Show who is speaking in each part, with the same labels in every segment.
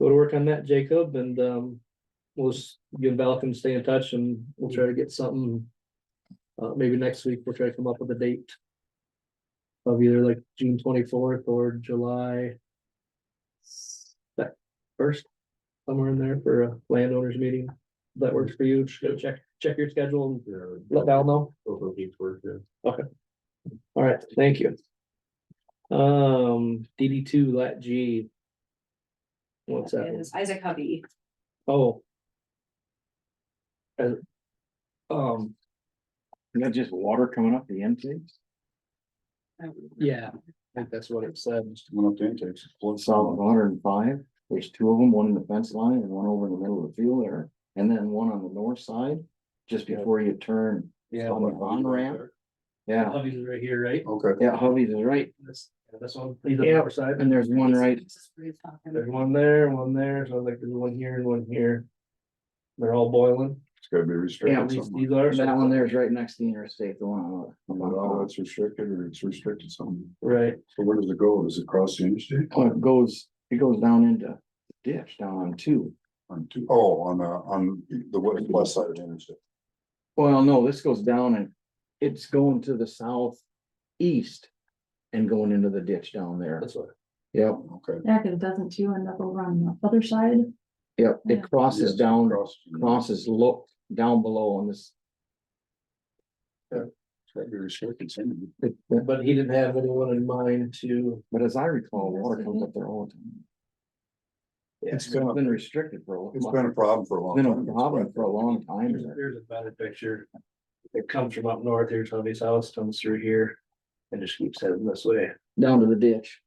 Speaker 1: go to work on that, Jacob, and, um, we'll, s- you and Val can stay in touch and we'll try to get something. Uh, maybe next week, we'll try to come up with a date. Of either like June twenty-fourth or July. That first, somewhere in there for a landowners meeting, If that works for you, just go check, check your schedule and let Val know. All right, thank you. Um, DD two, lat G. What's that? one?
Speaker 2: Is Isaac Hubby.
Speaker 1: Oh. And, um,
Speaker 3: Is that just water coming up the intakes?
Speaker 2: Um,
Speaker 1: yeah, I think that's what it said.
Speaker 3: Coming up the intakes. Solid water and five, there's two of them, one in the fence line and one over in the middle of the field there, and then one on the north side, just before you turn.
Speaker 1: Yeah.
Speaker 3: On the on ramp, yeah,
Speaker 1: Hubby's is right here, right?
Speaker 4: Okay.
Speaker 3: yeah, Hubby's is right,
Speaker 1: That's, yeah, that's one, he's on the
Speaker 3: Yeah.
Speaker 1: other side.
Speaker 3: and there's one right,
Speaker 1: There's one there, one there, so like there's one here and one here. They're all boiling.
Speaker 4: It's gotta be
Speaker 3: Yeah,
Speaker 4: restricted
Speaker 1: These,
Speaker 4: somehow.
Speaker 1: these are.
Speaker 3: that one there's right next to the interstate, the one. on the-
Speaker 4: Not all that's restricted or oh, it's restricted some.
Speaker 1: Right,
Speaker 4: So where does it go? Does it cross the interstate?
Speaker 3: Oh, it goes, it goes down into the ditch down on two.
Speaker 4: On two, oh, on, uh, on the west, west side of the interstate.
Speaker 3: Well, no, this goes down and it's going to the southeast and going into the ditch down there.
Speaker 1: that's what.
Speaker 3: Yep,
Speaker 4: Okay.
Speaker 2: Yeah, cause it doesn't too end up over on the other side.
Speaker 3: yep,
Speaker 2: Yeah.
Speaker 3: it crosses down,
Speaker 4: Cross.
Speaker 3: crosses look down below on this.
Speaker 4: It's gotta be restricted somehow.
Speaker 3: But
Speaker 1: But he didn't have anyone in mind to,
Speaker 3: as I recall, water comes up there all the time.
Speaker 4: It's
Speaker 3: It's
Speaker 4: been, a-
Speaker 3: been restricted for a long.
Speaker 4: it's been a problem for a long
Speaker 3: Been
Speaker 4: time.
Speaker 3: a problem for a long time.
Speaker 1: here's, here's a better picture. It comes from up north, here's Hubby's house, comes through here, and just keeps heading this way.
Speaker 3: Down to the ditch,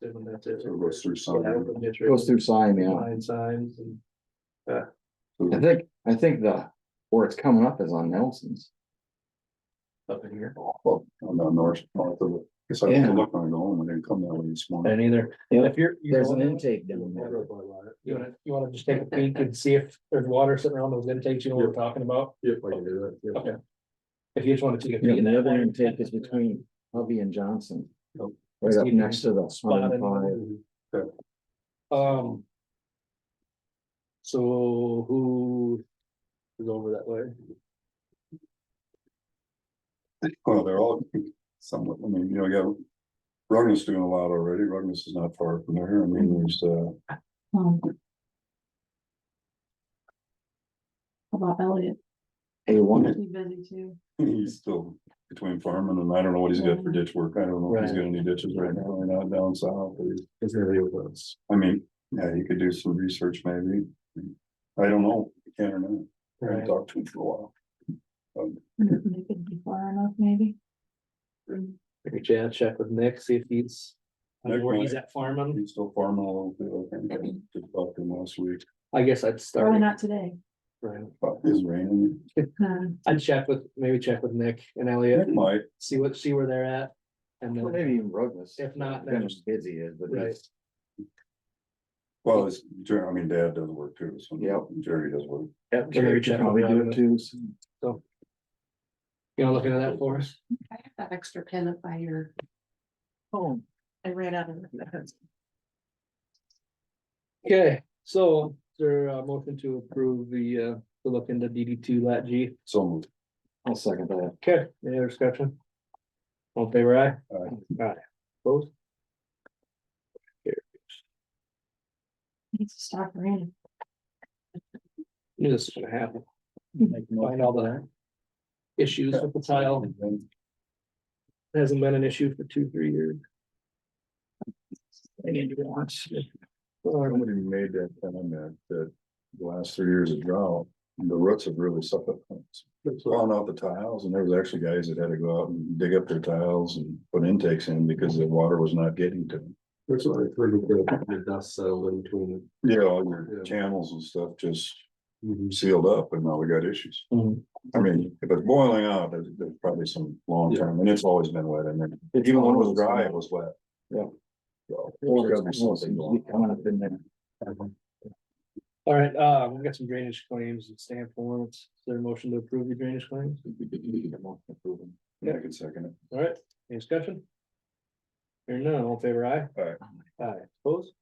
Speaker 1: Then that's
Speaker 4: So It goes through some.
Speaker 3: It goes through Siam, yeah.
Speaker 1: Line signs and.
Speaker 3: I
Speaker 4: through-
Speaker 3: think, I think the, where it's coming up is on Nelson's.
Speaker 1: up in here.
Speaker 4: Well, on the north, north of it. Cause I had to look on it home and then come that way this morning.
Speaker 1: And either,
Speaker 3: Yeah.
Speaker 1: if you're. you
Speaker 3: There's
Speaker 1: know
Speaker 3: an
Speaker 1: what?
Speaker 3: intake down there.
Speaker 1: You wanna, you wanna just take a peek and see if there's water sitting around those intakes, you know what we're talking about?
Speaker 4: Yep, I can do that.
Speaker 1: Okay. If you just wanna take a
Speaker 3: Yeah,
Speaker 1: peek.
Speaker 3: and the other intake is between Hubby and Johnson.
Speaker 4: Yep.
Speaker 3: Right up next to the.
Speaker 1: Spot in.
Speaker 3: 105.
Speaker 1: Um. So who is over that way?
Speaker 4: Well, they're all somewhat, I mean, you know, you have. Rugnus doing a lot already. Rugnus is not far from there. I mean, there's, uh,
Speaker 2: Um, how About Elliot,
Speaker 3: A one,
Speaker 2: he's busy too.
Speaker 4: he's still between farming and I don't know what he's got for ditch work. I don't know if he's got any ditches right now or not down south. but he's-
Speaker 1: Is there a was?
Speaker 4: I mean, yeah, you could do some research maybe. I don't know, if you can or not. I haven't
Speaker 1: Right,
Speaker 4: talked to him for a while.
Speaker 2: They could be far enough, maybe.
Speaker 1: maybe Chad check with Nick, see if he's. I don't know Where he's at farming,
Speaker 4: He's still farming a little bit. I think I just talked to him last week,
Speaker 1: I guess I'd
Speaker 2: Probably
Speaker 1: start,
Speaker 2: not today.
Speaker 1: right.
Speaker 4: but it's raining.
Speaker 2: Um,
Speaker 1: I'd check with, maybe check with Nick and Elliot,
Speaker 4: It might,
Speaker 1: see what, see where they're at. And
Speaker 3: Well,
Speaker 1: then,
Speaker 3: maybe even Ruggles.
Speaker 1: if not, then-
Speaker 3: Then it's busy is, but
Speaker 1: Right.
Speaker 3: it's,
Speaker 4: well, it's, Jer- I mean, dad does work too, so.
Speaker 3: Yep.
Speaker 4: Jerry does work.
Speaker 3: yeah,
Speaker 1: Jerry
Speaker 3: Jerry
Speaker 1: Jeff
Speaker 3: should probably do it too. so.
Speaker 1: you know, looking at that for us,
Speaker 2: I have that extra pen up by your,
Speaker 3: Oh,
Speaker 2: I ran out of that.
Speaker 1: okay, so is there a motion to approve the, uh, to look into DD two lat G.
Speaker 4: So moved.
Speaker 3: I'll second that.
Speaker 1: Okay, any other discussion? All in favor aye.
Speaker 4: Aye.
Speaker 1: Aye. Both,
Speaker 2: Needs to stop raining.
Speaker 1: knew this was gonna happen. Find all the issues with the tile, hasn't been an issue for two, three years. I need to watch.
Speaker 4: Somebody made that comment that the last three years of drought, the roots have really suffered. Blown out the tiles and there was actually guys that had to go out and dig up their tiles and put intakes in because the water was not getting to them.
Speaker 5: That's what I heard with the, the dust settled in between.
Speaker 4: Yeah, all your
Speaker 5: Yeah. Mm-hmm.
Speaker 4: channels and stuff just
Speaker 5: the-
Speaker 4: sealed up and now we got issues.
Speaker 5: Mm-hmm.
Speaker 1: Mhm.
Speaker 4: I mean, if it's boiling out, there's, there's probably some long term and it's always been wet and then even when it was dry, it was wet.
Speaker 3: Yeah.
Speaker 4: So,
Speaker 3: Or
Speaker 4: there's gotta be
Speaker 3: it's
Speaker 4: something going on.
Speaker 3: coming up in there.
Speaker 1: All right, uh, we've got some drainage claims and stand forms, is there a motion to approve the drainage claims?
Speaker 4: Yeah, I can second it.
Speaker 1: All right, any discussion? Hearing none, all in favor aye.
Speaker 4: Aye.
Speaker 1: Aye, opposed?